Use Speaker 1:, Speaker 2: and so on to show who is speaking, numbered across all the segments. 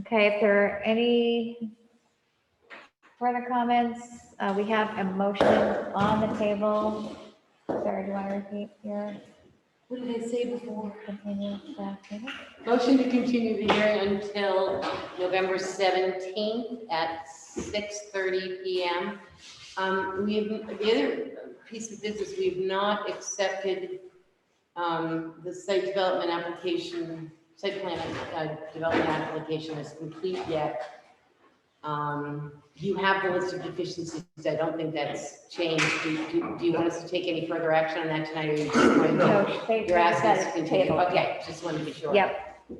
Speaker 1: Okay, if there are any further comments, uh, we have a motion on the table. Sarah, do you want to repeat your
Speaker 2: What did I say before?
Speaker 1: continued staff meeting?
Speaker 2: Motion to continue the hearing until November 17th at 6:30 PM. Um, We have, the other piece of business, we've not accepted um, the site development application, site plan uh, development application is complete yet. Um, You have the list of deficiencies. I don't think that's changed. Do- Do do you want us to take any further action on that tonight? or you just want to-
Speaker 1: No, they-
Speaker 2: You're asking us to
Speaker 1: that's
Speaker 2: continue,
Speaker 1: tabled.
Speaker 2: okay, just wanted to be sure.
Speaker 1: Yep,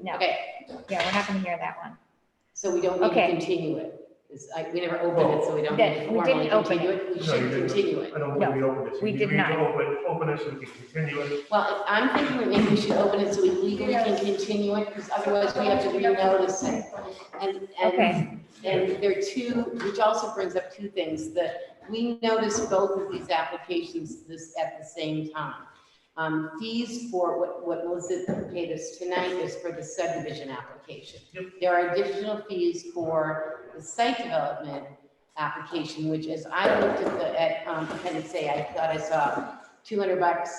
Speaker 1: no,
Speaker 2: Okay,
Speaker 1: yeah, we're not going to hear that one.
Speaker 2: so we don't need to
Speaker 1: Okay.
Speaker 2: continue it. It's- I- We never opened it, so we don't
Speaker 1: That-
Speaker 2: need to
Speaker 1: we
Speaker 2: formally
Speaker 1: didn't open
Speaker 2: continue it. We
Speaker 3: No,
Speaker 2: should
Speaker 3: you didn't.
Speaker 2: continue it.
Speaker 3: I don't
Speaker 1: No,
Speaker 3: think we opened it. so
Speaker 1: we
Speaker 3: you
Speaker 1: did
Speaker 3: need to
Speaker 1: not.
Speaker 3: Open, open it so we can continue it.
Speaker 2: Well, I'm thinking that maybe we should open it so we legally can continue it, because otherwise we have to renotice it. And,
Speaker 1: Okay.
Speaker 2: and, and there are two, which also brings up two things, that we noticed both of these applications this, at the same time. Um, fees for what, what Melissa paid us tonight is for the subdivision application.
Speaker 3: Yep.
Speaker 2: There are additional fees for the site development application, which as I looked at the, at, um, appendix A, I thought I saw two hundred bucks.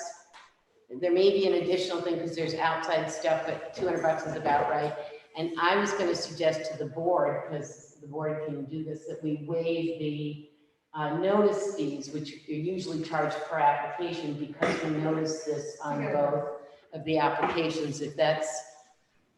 Speaker 2: There may be an additional thing, because there's outside stuff, but two hundred bucks is about right. And I was gonna suggest to the board, because the board can do this, that we waive the uh, notice fees, which are usually charged per application, because we notice this on both of the applications, if that's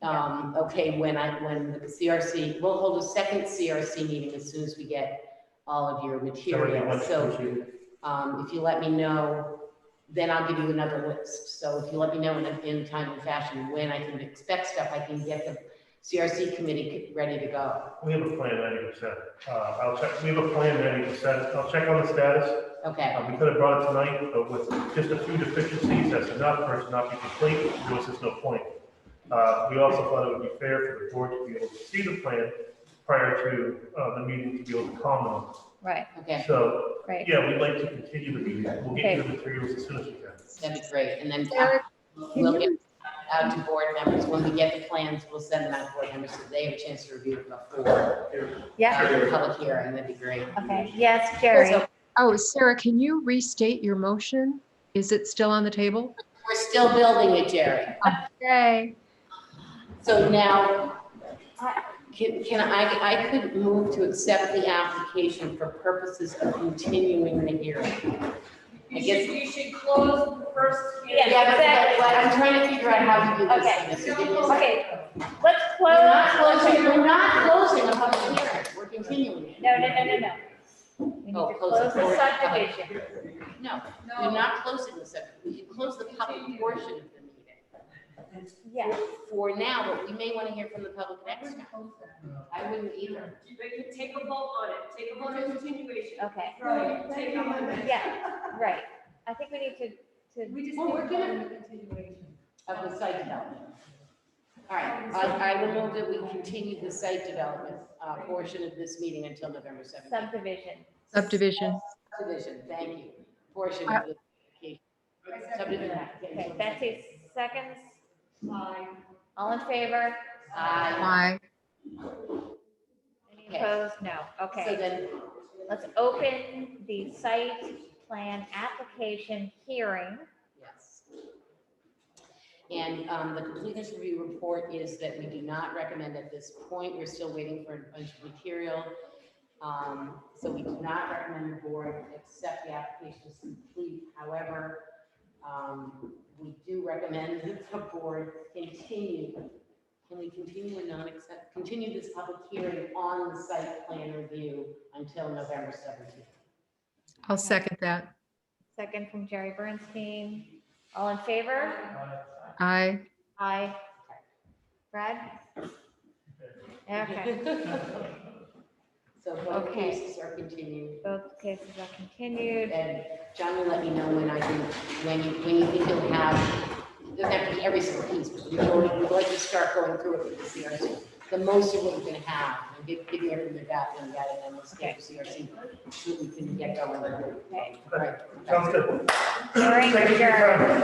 Speaker 2: um, okay, when I, when the CRC, we'll hold a second CRC meeting as soon as we get all of your material. So, um, if you let me know, then I'll give you another list. So if you let me know in a, in a timely fashion when I can expect stuff, I can get the CRC committee ready to go.
Speaker 3: We have a plan ninety percent. Uh, I'll check, we have a plan ninety percent. I'll check on the status.
Speaker 2: Okay,
Speaker 3: Uh, we could have brought it tonight, but with just a few deficiencies, that's enough for it to not be complete. There was just no point. Uh, we also thought it would be fair for the board to be able to see the plan prior to, uh, the meeting to be able to comment.
Speaker 1: Right,
Speaker 2: okay,
Speaker 3: So,
Speaker 1: right.
Speaker 3: yeah, we'd like to continue the meeting. We'll get you the materials as soon as we can.
Speaker 2: that'd be great. And then
Speaker 4: Sarah,
Speaker 2: we'll get out to board members. When we get the plans, we'll send them out to board members so they have a chance to review it before
Speaker 1: Yeah,
Speaker 2: uh, the public hearing. That'd be great.
Speaker 1: okay, yes, Jerry.
Speaker 2: So
Speaker 4: Oh, Sarah, can you restate your motion? Is it still on the table?
Speaker 2: We're still building it, Jerry.
Speaker 4: Yay.
Speaker 2: So now, I- can, can I, I could move to accept the application for purposes of continuing the hearing. I
Speaker 5: You
Speaker 2: guess-
Speaker 5: should, you should close the first hearing.
Speaker 1: Yeah,
Speaker 2: but- but what I'm trying to figure out how to do
Speaker 1: Okay.
Speaker 2: this. Mr. Daniels.
Speaker 1: Okay, let's
Speaker 2: We're
Speaker 1: close.
Speaker 2: not closing, we're not closing a public hearing, we're continuing it.
Speaker 1: No, no, no, no, no. We need
Speaker 2: Oh,
Speaker 1: to
Speaker 2: close the
Speaker 1: close the
Speaker 2: board.
Speaker 1: subdivision.
Speaker 2: No, we're
Speaker 5: No,
Speaker 2: not closing the subject, we can close the public portion of the meeting.
Speaker 1: Yes,
Speaker 2: For now, but we may want to hear from the public next time. I wouldn't either.
Speaker 5: but you take a vote on it, take a vote on continuation.
Speaker 1: okay,
Speaker 5: Right, take a vote.
Speaker 1: yeah, right. I think we need to, to,
Speaker 5: We just.
Speaker 2: Well,
Speaker 5: need
Speaker 2: we're
Speaker 5: to
Speaker 2: gonna-
Speaker 5: vote on the continuation.
Speaker 2: of the site development. All right, I, I will move that we continue the site development, uh, portion of this meeting until November seventeenth.
Speaker 1: subdivision.
Speaker 4: Subdivision.
Speaker 2: Subdivision, thank you, portion of the. Subdivision.
Speaker 1: Okay, Betsy, seconds? All in favor?
Speaker 2: Aye.
Speaker 4: Aye.
Speaker 1: Any
Speaker 2: Okay.
Speaker 1: opposed? No,
Speaker 2: So
Speaker 1: okay.
Speaker 2: then,
Speaker 1: Let's open the site plan application hearing.
Speaker 2: yes. And, um, the completeness review report is that we do not recommend at this point, we're still waiting for a bunch of material. Um, so we do not recommend the board accept the application as complete, however, um, we do recommend that the board continue. Can we continue and not accept, continue this public hearing on the site plan review until November seventeenth?
Speaker 4: I'll second that.
Speaker 1: Second from Jerry Bernstein. All in favor?
Speaker 4: Aye.
Speaker 1: Aye. Brad? Okay,
Speaker 2: So both
Speaker 1: Okay.
Speaker 2: cases are continued,
Speaker 1: both cases are continued.
Speaker 2: and John will let me know when I can, when you, when you think you'll have, it doesn't have to be every single piece, but we would we'd like to start going through it with the CRC. The most of what we can have, and give, give me everything you got, and got it, and then we'll stay with CRC, so we can get going.
Speaker 1: Okay.
Speaker 2: Right.
Speaker 3: Sounds good.
Speaker 1: Hearing
Speaker 3: Thank you for your
Speaker 1: adjourned.
Speaker 3: time.